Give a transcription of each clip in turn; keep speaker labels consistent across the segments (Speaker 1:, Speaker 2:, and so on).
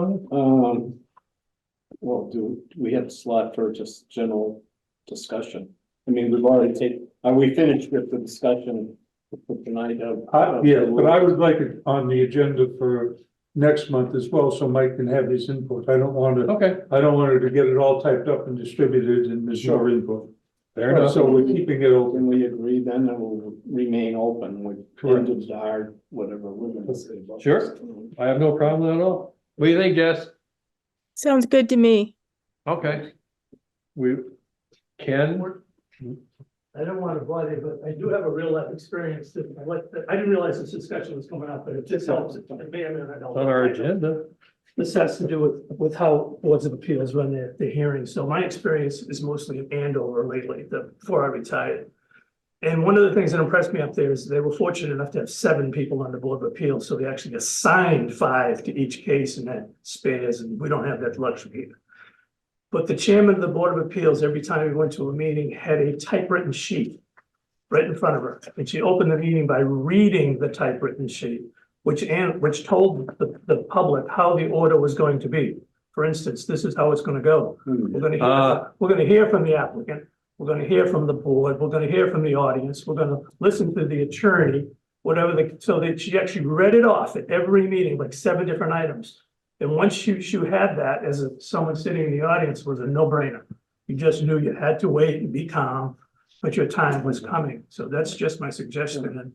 Speaker 1: one, um. Well, do, do we have slot for just general discussion? I mean, we've already taken, are we finished with the discussion for tonight of?
Speaker 2: Uh,
Speaker 3: I, Uh, yeah, but I would like it on the agenda for next month as well, so Mike can have his input. I don't want to,
Speaker 1: Okay,
Speaker 3: I don't want her to get it all typed up and distributed and miss your input. So we're keeping it open.
Speaker 1: Then we agree then and we'll remain open with
Speaker 3: Correct.
Speaker 1: ended our whatever we're gonna say. about
Speaker 2: Sure.
Speaker 1: this.
Speaker 2: I have no problem at all. What do you think, Jess?
Speaker 4: Sounds good to me.
Speaker 2: Okay. We, Ken,
Speaker 5: I don't want to bother, you, but I do have a real life experience that I like, that I didn't realize this discussion was coming up, but it just helps. It may or may not help.
Speaker 2: on our agenda.
Speaker 5: This has to do with, with how boards of appeals run their, their hearings. So my experience is mostly in Andover lately, the, before I retired. And one of the things that impressed me up there is they were fortunate enough to have seven people on the Board of Appeals, so they actually assigned five to each case and that spares, and we don't have that luxury here. But the chairman of the Board of Appeals, every time we went to a meeting, had a typewritten sheet right in front of her, and she opened the meeting by reading the typewritten sheet which and which told the the public how the order was going to be. For instance, this is how it's gonna go.
Speaker 1: Hmm.
Speaker 5: We're gonna
Speaker 2: Ah.
Speaker 5: hear, we're gonna hear from the applicant, we're gonna hear from the board, we're gonna hear from the audience, we're gonna listen to the attorney. Whatever the, so that she actually read it off at every meeting, like seven different items. And once you you had that as a- someone sitting in the audience was a no-brainer. You just knew you had to wait and be calm, but your time was coming. So that's just my suggestion and.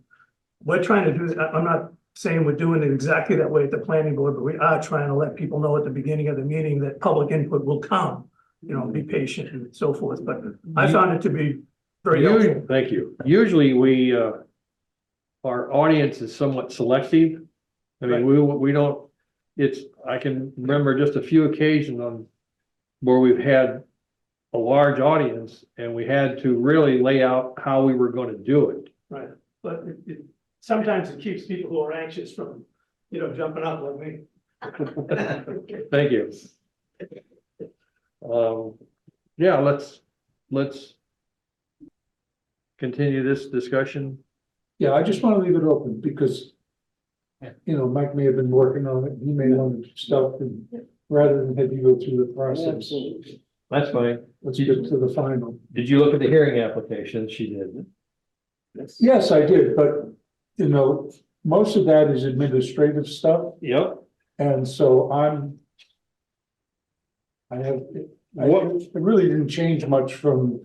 Speaker 5: We're trying to do, I- I'm not saying we're doing it exactly that way at the planning board, but we are trying to let people know at the beginning of the meeting that public input will come. You know, be patient and so forth, but I found it to be very helpful.
Speaker 2: Usu- Thank you. Usually we, uh, our audience is somewhat selective. I mean, we, we don't, it's, I can remember just a few occasions on where we've had a large audience and we had to really lay out how we were gonna do it.
Speaker 5: Right, but it, it, sometimes it keeps people who are anxious from, you know, jumping up like me.
Speaker 2: Thank you. Um, yeah, let's, let's continue this discussion.
Speaker 3: Yeah, I just want to leave it open because you know, Mike may have been working on it. He may want to stop and rather than have you go through the process.
Speaker 1: Absolutely.
Speaker 6: That's fine.
Speaker 3: Let's get to the final.
Speaker 6: Did you look at the hearing application? She did.
Speaker 1: Yes.
Speaker 3: Yes, I did, but you know, most of that is administrative stuff.
Speaker 2: Yep.
Speaker 3: And so I'm. I have, I
Speaker 2: What-
Speaker 3: it really didn't change much from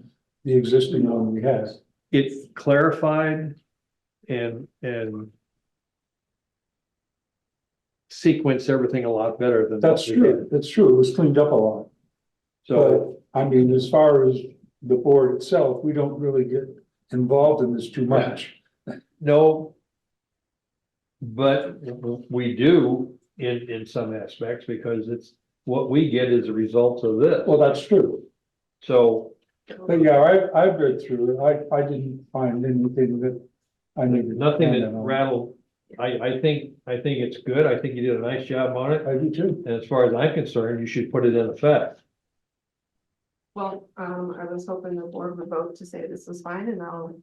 Speaker 3: the existing one we had.
Speaker 2: It's clarified and, and sequence everything a lot better than. what
Speaker 3: That's
Speaker 2: we had.
Speaker 3: true, that's true, it was cleaned up a lot.
Speaker 2: So,
Speaker 3: But I mean, as far as the board itself, we don't really get involved in this too much.
Speaker 2: no. But we do in, in some aspects because it's, what we get is a result of this.
Speaker 3: Well, that's true,
Speaker 2: So
Speaker 3: but yeah, I, I've read through it, I, I didn't find anything that I needed. to
Speaker 2: Nothing
Speaker 3: comment
Speaker 2: that
Speaker 3: on.
Speaker 2: rattled, I, I think, I think it's good, I think you did a nice job on it,
Speaker 3: I do too.
Speaker 2: and as far as I'm concerned, you should put it in effect.
Speaker 7: Well, um, I was hoping the board would vote to say this is fine and I'll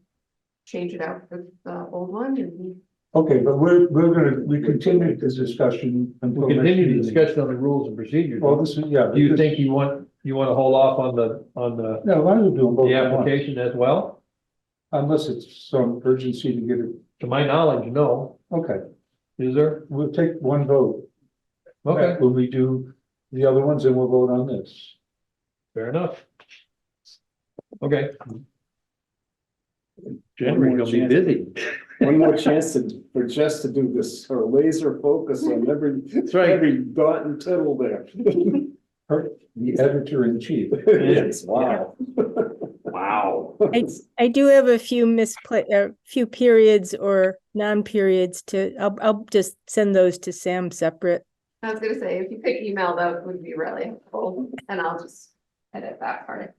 Speaker 7: change it out for the old one and
Speaker 3: Okay, but we're, we're gonna, we continued this discussion. until
Speaker 2: We
Speaker 3: next
Speaker 2: continue
Speaker 3: meeting.
Speaker 2: to discuss on the rules and procedures,
Speaker 3: Well,
Speaker 2: do
Speaker 3: this is, yeah.
Speaker 2: you
Speaker 3: this-
Speaker 2: think you want, you wanna hold off on the, on the,
Speaker 3: No, why don't we do them both?
Speaker 2: the
Speaker 3: at once?
Speaker 2: application as well?
Speaker 3: Unless it's some urgency to get it,
Speaker 2: To my knowledge, no,
Speaker 3: okay,
Speaker 2: is there?
Speaker 3: we'll take one vote.
Speaker 2: Okay,
Speaker 3: When we do the other ones, and we'll vote on this.
Speaker 2: fair enough. Okay.
Speaker 1: One
Speaker 2: January's
Speaker 1: more
Speaker 2: gonna be
Speaker 1: chance.
Speaker 2: busy.
Speaker 1: One more chance to, for Jess to do this, her laser focus on every,
Speaker 2: right.
Speaker 1: every dot and tittle there.
Speaker 3: The editor in chief.
Speaker 1: Yes, wow.
Speaker 6: Wow.
Speaker 4: I, I do have a few mispla, a few periods or non-periods to, I'll, I'll just send those to Sam separate.
Speaker 7: I was gonna say, if you could email, that would be really helpful and I'll just edit that part.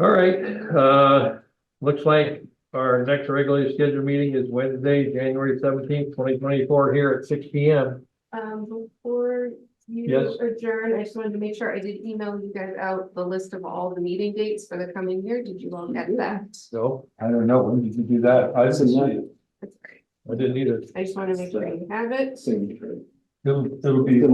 Speaker 2: All right, uh, looks like our next regularly scheduled meeting is Wednesday, January seventeenth, twenty twenty-four, here at six P M.
Speaker 7: Um, before
Speaker 2: Yes.
Speaker 7: you adjourn, I just wanted to make sure I did email you guys out the list of all the meeting dates for the coming year. Did you all get that?
Speaker 2: So,
Speaker 3: I don't know, when did you do that? I
Speaker 1: That's a
Speaker 3: didn't see
Speaker 1: nice
Speaker 3: it.
Speaker 7: That's great.
Speaker 2: I didn't either.
Speaker 7: I just want to make sure you have it.
Speaker 1: signature.
Speaker 2: It'll, it'll be.